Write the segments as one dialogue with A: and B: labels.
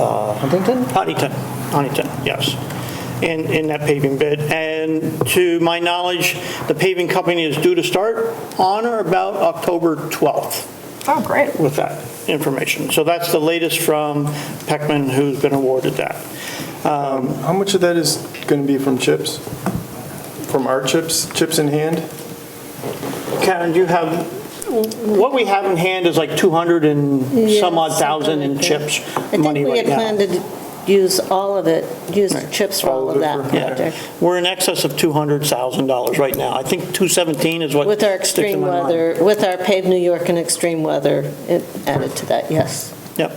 A: uh, Huntington?
B: Huntington, Huntington, yes, in, in that paving bid. And to my knowledge, the paving company is due to start on or about October 12th
C: Oh, great.
B: with that information. So that's the latest from Peckman, who's been awarded that. Um,
D: How much of that is going to be from chips? From our chips, chips in hand?
B: Karen, do you have, what we have in hand is like 200 and some odd
E: Yeah,
B: thousand in
E: something like
B: CHIPS
E: that.
B: money right now.
E: I think we had planned to use all of it, use chips for
D: All
E: all
D: of
E: of
D: it
E: that
D: for-
E: project.
B: We're in excess of $200,000 right now. I think 217 is what
E: With our
B: sticks in
E: extreme
B: my mind.
E: weather, with our paved New York and extreme weather it added to that, yes.
B: Yep.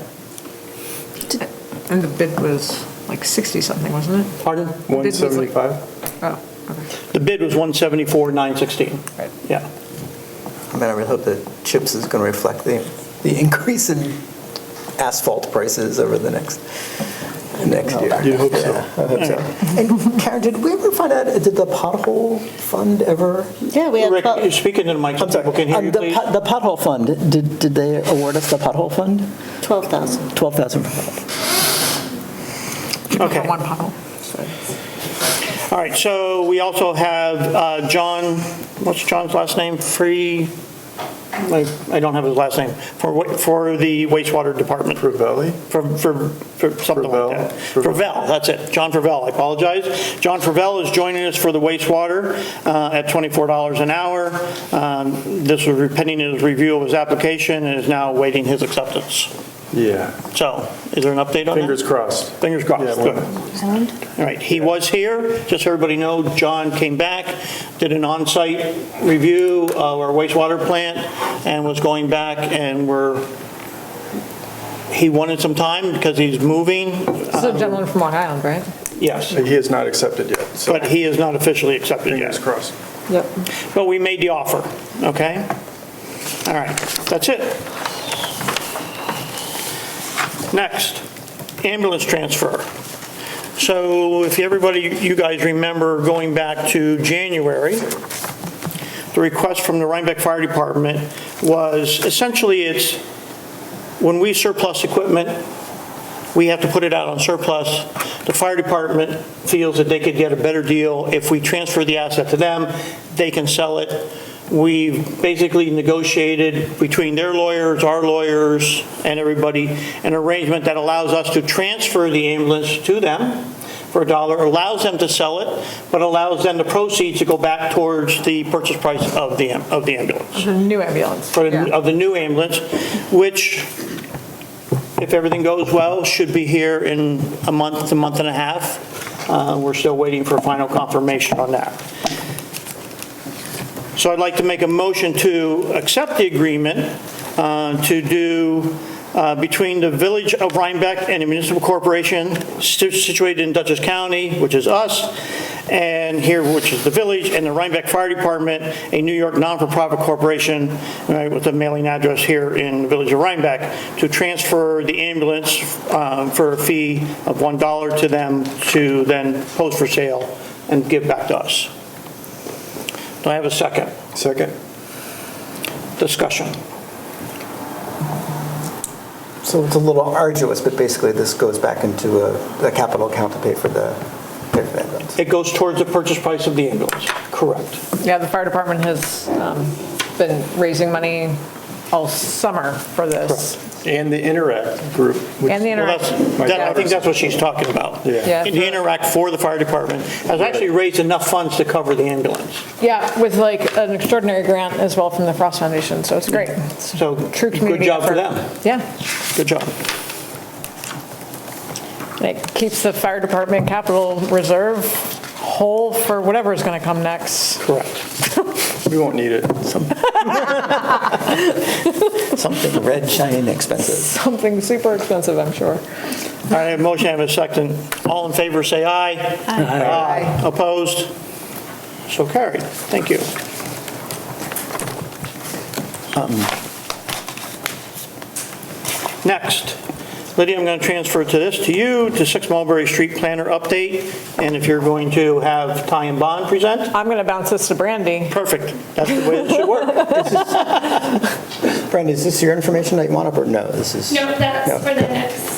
C: And the bid was like 60-something, wasn't it?
B: Pardon?
C: This was like-
D: 175?
C: Oh, okay.
B: The bid was 174, 916.
C: Right.
B: Yeah.
F: I mean, I would hope that CHIPS is going to reflect the, the increase in asphalt prices over the next, next year.
D: You'd hope so.
F: Yeah, I hope so. And Karen, did we ever find out, did the pothole fund ever?
E: Yeah, we had,
B: Rick, you're
E: about
B: speaking to the mic, so
F: I'm sorry.
B: people can hear
F: um,
B: you,
F: the
B: please.
F: pot- The pothole fund, did, did they award us the pothole fund?
E: 12,000.
F: 12,000.
B: Okay.
C: One pothole. So-
B: All right, so we also have uh, John, what's John's last name? Free, I I don't have his last name, for wa- for the wastewater department.
D: Ravelli?
B: For, for, for something
D: Fravel?
B: like that. Fravel, that's it, John Fravel, I apologize. John Fravel is joining us for the wastewater uh, at $24 an hour. Um, This was pending his review of his application and is now awaiting his acceptance.
D: Yeah,
B: So, is there an update on that?
D: fingers crossed.
B: Fingers crossed,
D: Yeah,
B: good.
D: well-
B: All right, he was here, just so everybody know, John came back, did an on-site review of our wastewater plant, and was going back, and we're, he wanted some time because he's moving, Uh,
C: This is a gentleman from Long Island, right?
B: yes,
D: He has not accepted yet, so
B: but he is not officially accepted
D: fingers
B: yet.
D: crossed.
C: Yep.
B: But we made the offer, okay? All right, that's it. Next, ambulance transfer. So if everybody, you guys remember going back to January, the request from the Rhinebeck Fire Department was, essentially, it's, when we surplus equipment, we have to put it out on surplus. The fire department feels that they could get a better deal if we transfer the asset to them, they can sell it. We basically negotiated between their lawyers, our lawyers, and everybody, an arrangement that allows us to transfer the ambulance to them for a dollar, allows them to sell it, but allows them the proceeds to go back towards the purchase price of the, am- of the ambulance
C: The new ambulance.
B: for,
C: Yeah.
B: the- of the new ambulance, which, if everything goes well, should be here in a month, a month and a half. Uh, We're still waiting for final confirmation on that. So I'd like to make a motion to accept the agreement uh, to do uh, between the Village of Rhinebeck and a municipal corporation situ- situated in Dutchess County, which is us, and here, which is the village, and the Rhinebeck Fire Department, a New York non-for-profit corporation right, with a mailing address here in the Village of Rhinebeck, to transfer the ambulance um, for a fee of $1 to them to then post for sale and give back to us. Do I have a second?
D: Second?
B: Discussion.
F: So it's a little arduous, but basically this goes back into a, the capital account to pay for the, pay for the ambulance.
B: It goes towards the purchase price of the ambulance. Correct.
C: Yeah, the fire department has um, been raising money all summer for this.
D: And the Interact group. which-
C: And the
B: Well,
C: interact.
B: that's, that- I think that's what she's talking about.
D: Yeah.
C: Yeah.
B: The Interact for the fire department has actually raised enough funds to cover the ambulance.
C: Yeah, with like an extraordinary grant as well from the Frost Foundation, so it's great. It's a
B: So,
C: True
B: good
C: community
B: job for
C: effort.
B: them.
C: Yeah.
B: Good job.
C: And It keeps the fire department capital reserve whole for whatever's going to come next.
B: Correct.
D: We won't need it.
F: Something red shiny expensive.
C: Something super expensive, I'm sure.
B: All right, I have a motion, I have a second. All in favor, say aye. Aye. Opposed? So carried. Thank you. Um, Next, Lydia, I'm going to transfer to this, to you, to 6 Mulberry Street Planner Update, and if you're going to have Ty and Bond present,
C: I'm going to bounce this to Brandy.
B: perfect. That's the way it should work.
F: Brenda, is this your information that you want up or no? This is.
G: No, that's
F: No.
G: for the next